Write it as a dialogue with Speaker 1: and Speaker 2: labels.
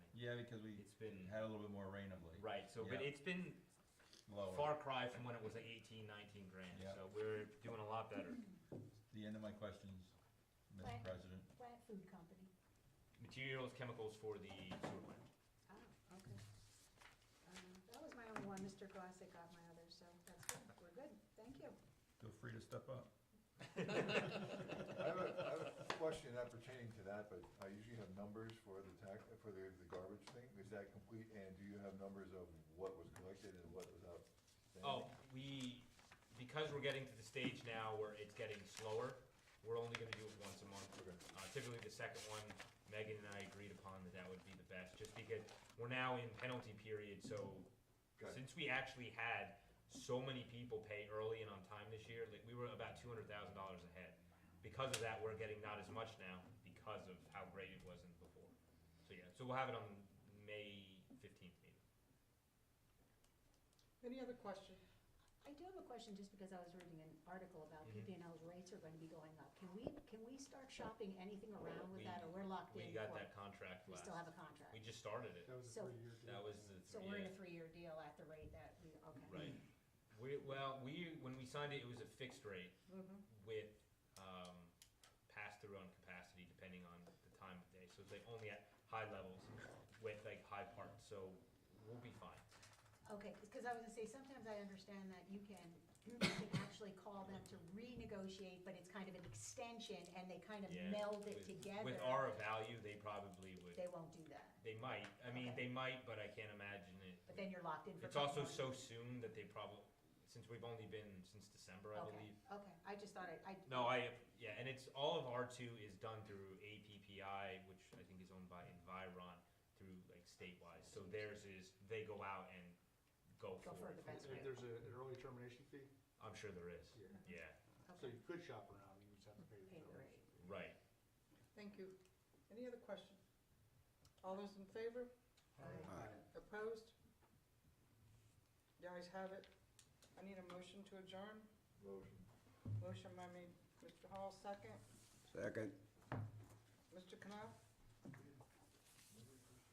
Speaker 1: Yeah, because we
Speaker 2: It's been-
Speaker 1: had a little bit more rain of late.
Speaker 2: Right, so, but
Speaker 1: Yeah.
Speaker 2: it's been
Speaker 1: Lower.
Speaker 2: far cry from when it was like 18, 19 grand,
Speaker 1: Yeah.
Speaker 2: so we're doing a lot better.
Speaker 1: The end of my questions, Mr.
Speaker 3: Right.
Speaker 1: President.
Speaker 3: Plant food company.
Speaker 2: Materials, chemicals for the sewer plant.
Speaker 3: Oh, okay. Um, That was my only one. Mr. Glassick got my other, so that's good. We're good. Thank you.
Speaker 1: Feel free to step up.
Speaker 4: I have a, I have a question not pertaining to that, but I usually have numbers for the tax, for the, the garbage thing. Is that complete? And do you have numbers of what was collected and what was out?
Speaker 2: Oh, we, because we're getting to the stage now where it's getting slower, we're only gonna do it once a
Speaker 4: Okay.
Speaker 2: month. Uh, typically the second one, Megan and I agreed upon that that would be the best, just because we're now in penalty period, so
Speaker 4: Got it.
Speaker 2: since we actually had so many people pay early and on time this year, like, we were about two hundred thousand dollars ahead. Because of that, we're getting not as much now because of how great it wasn't before. So, yeah, so we'll have it on May fifteenth meeting.
Speaker 5: Any other question?
Speaker 3: I do have a question, just because I was reading an article about
Speaker 2: Mhm.
Speaker 3: PPL's rates are going to be going up. Can we, can we start shopping anything around with
Speaker 2: We-
Speaker 3: that, or we're locked in?
Speaker 2: We got
Speaker 3: for-
Speaker 2: that contract
Speaker 3: We
Speaker 2: last.
Speaker 3: still have a
Speaker 2: We
Speaker 3: contract.
Speaker 2: just started it.
Speaker 6: That was a
Speaker 3: So-
Speaker 6: three-year deal.
Speaker 2: That was the
Speaker 3: So
Speaker 2: three.
Speaker 3: we're in a Mm. three-year deal at the rate that we, okay.
Speaker 2: Right. We, well, we, when we signed it, it was a fixed rate
Speaker 3: Mm-hmm.
Speaker 2: with, um, pass-through on capacity depending on the time of day. So it's like only at high levels with like high parts, so we'll be fine.
Speaker 3: Okay, because I was gonna say, sometimes I understand that you can, you can actually call them to renegotiate, but it's kind of an extension, and they kind of
Speaker 2: Yeah,
Speaker 3: meld it
Speaker 2: with-
Speaker 3: together.
Speaker 2: With our value, they probably
Speaker 3: They
Speaker 2: would,
Speaker 3: won't do that,
Speaker 2: they might, I mean,
Speaker 3: Okay.
Speaker 2: they might, but I can't imagine it.
Speaker 3: but then you're locked in for.
Speaker 2: It's also
Speaker 3: 12 months.
Speaker 2: so soon that they probably, since we've only been since December, I
Speaker 3: Okay,
Speaker 2: believe.
Speaker 3: Okay, I just thought I, I.
Speaker 2: No, I, yeah, and it's, all of R two is done through APPI, which I think is owned by Environ, through like statewide, so theirs is, they go out and go
Speaker 3: Go
Speaker 2: for
Speaker 3: for
Speaker 2: it.
Speaker 3: the best
Speaker 6: There-
Speaker 3: rate.
Speaker 6: There's a- an early termination fee,
Speaker 2: I'm sure there is,
Speaker 6: Yeah.
Speaker 2: yeah,
Speaker 6: so
Speaker 3: Okay,
Speaker 6: you could shop around, you just have to pay the
Speaker 3: Pay the
Speaker 6: termination.
Speaker 2: right.
Speaker 5: Thank you. Any other question? All those in favor?
Speaker 6: fee.
Speaker 3: Aye.
Speaker 5: Opposed? The ayes have it. I need a motion to adjourn.
Speaker 4: Motion.
Speaker 5: Motion by me, Mr. Hall, second.
Speaker 7: Second.
Speaker 5: Mr. Knopf?